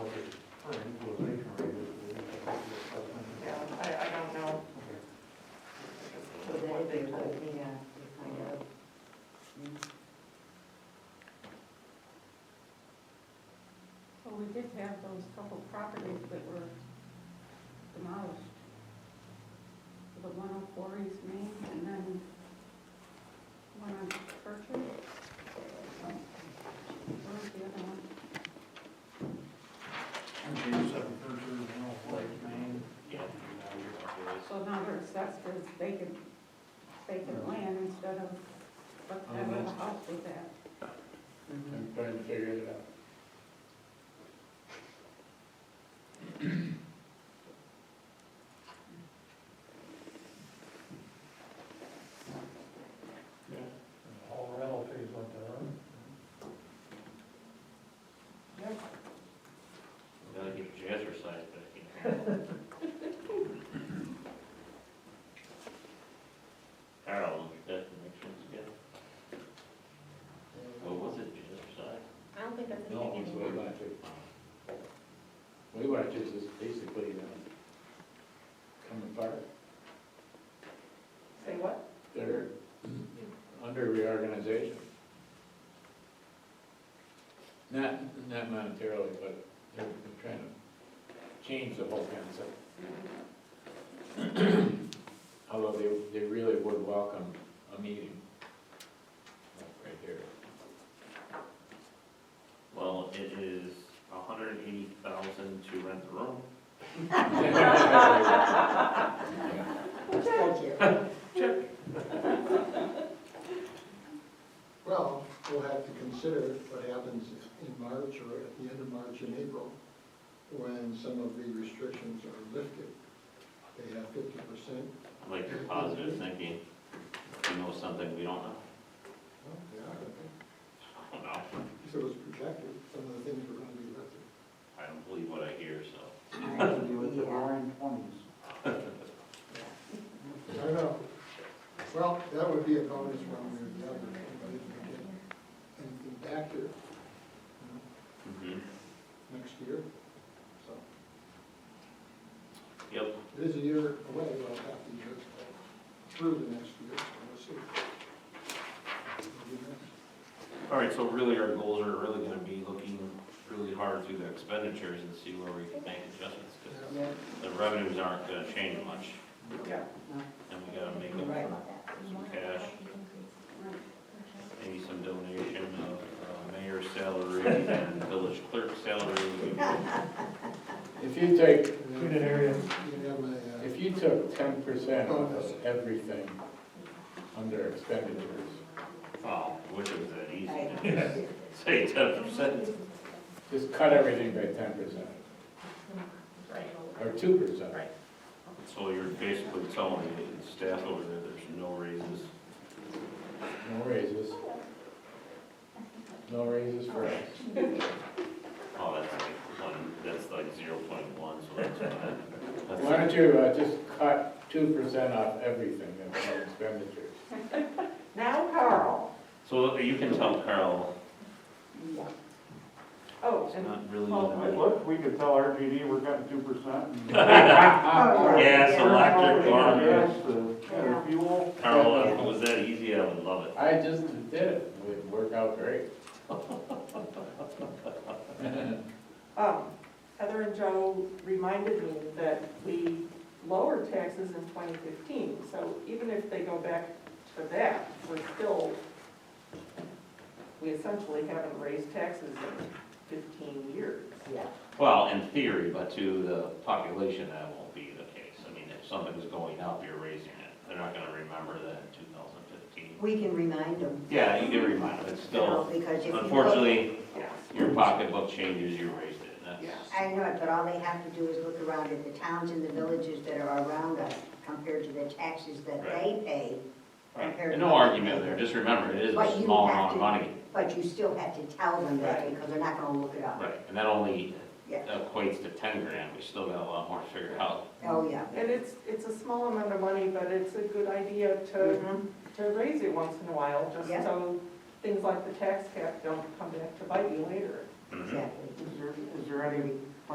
had those couple properties that were demolished. The one on Quarries Main and then one on Churchill. Where was the other one? James up in Berkshire, you know, Lake Maine. Yeah, now you're up there. It's- So now they're assessed as vacant, vacant land instead of whatever the house was at. mm-hmm. I'm trying to figure it out. All rental fees went there, huh? Gotta get jazzercise back in. Carl, look at that and make sure it's good. What was it, jazzercise? I don't think that's a No, huge it's way back to. Way back to is basically, um, coming apart. Say what? They're under reorganization. Not, not monetarily, but they're they're trying to change the whole concept. Although they, they really would welcome a meeting. Like Right here. Well, it is a hundred and eighty thousand to rent the room. Yeah. Thank you. Well, we'll have to consider what happens in March or at the end of March and April, when some of the restrictions are lifted. They have fifty percent, Like your positive thinking, you know something we don't know. well, they are, I I don't know. think. So it's protected, some of the things are gonna be lifted. I don't believe what I hear, so. the RN twenties. I don't know. Well, that would be a bonus one way or the other, but if we get anything back here you Mhm. know, next year, so. Yep, It is a year away, we'll have to years through the next year, so we'll see. We'll do next. all right, so really our goals are really gonna be looking really hard through the expenditures and see where we can make adjustments, 'cause Yeah. the revenues aren't gonna change much. And we gotta make Right. up for some cash, maybe some donation of uh, mayor's salary and village clerk's salary. If you take, Treated area. You have a, uh, if you took ten percent of everything under expenditures, Oh, wish it was that easy to do. say ten percent. just cut everything by ten percent, or two percent. Right. So you're basically telling the staff over there, there's no raises. No raises. No raises for us. Oh, that's like one, that's like zero point one, so that's fine. That's- Why don't you, uh, just cut two percent off everything that's on expenditures? Now Carl. So uh, you can tell Carl, Oh, it's and. not really. Oh, Well, in the- Look, we could tell RGD we're cutting two percent. Oh, yeah. Gas, electric, garbage. Yes, fuel. Carl, if it was that easy, I would love it. I just did it, it would work out great. Um, Heather and Joe reminded me that we lowered taxes in 2015, so even if they go back to that, we're still, we essentially haven't raised taxes in 15 years. Yeah. Well, in theory, but to the population, that won't be the case. I mean, if something's going up, you're raising it. They're not gonna remember that in two thousand fifteen. We can remind them, Yeah, you can remind them, it's you know, still, because if you look. unfortunately, Yes. your pocketbook changes, you raised it, and that's, I know it, but all they have to do is look around at the towns and the villages that are around us compared to the taxes that they pay. right. Compared And no to- argument there, just remember, it is But a you small have amount of to- money. But you still have to tell them that Right. because they're not gonna look it up. Right, and that only Yeah. equates to ten grand, we still got a lot more to figure out. Oh, yeah. And it's, it's a small amount of money, but it's a good idea to, Mm-hmm. to raise it once in a while, just Yeah. so things like the tax cap don't come back to bite you later. Mhm. Exactly. Mm-hmm. Is there, is there any